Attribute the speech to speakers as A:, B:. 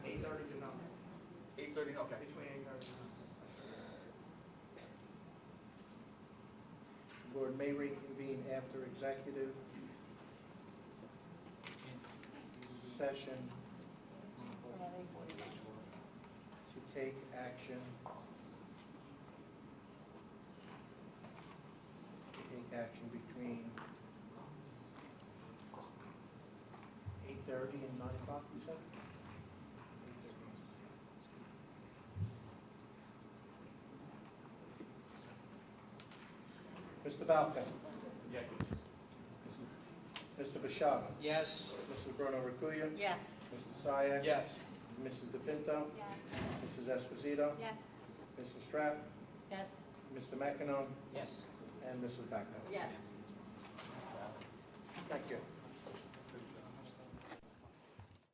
A: Okay.
B: Between her.
A: Board may reconvene after executive session to take action. To take action between eight-thirty and nine o'clock, you said? Mr. Balcon?
B: Yes.
A: Mr. Bishara?
B: Yes.
A: Mrs. Bruno Riccuya?
C: Yes.
A: Mr. Syak?
B: Yes.
A: Mrs. DePinto?
C: Yes.
A: Mrs. Esposito?
C: Yes.
A: Mrs. Strapp?
C: Yes.
A: Mr. McEnon?
B: Yes.
A: And Mrs. Backer?
C: Yes.
A: Thank you.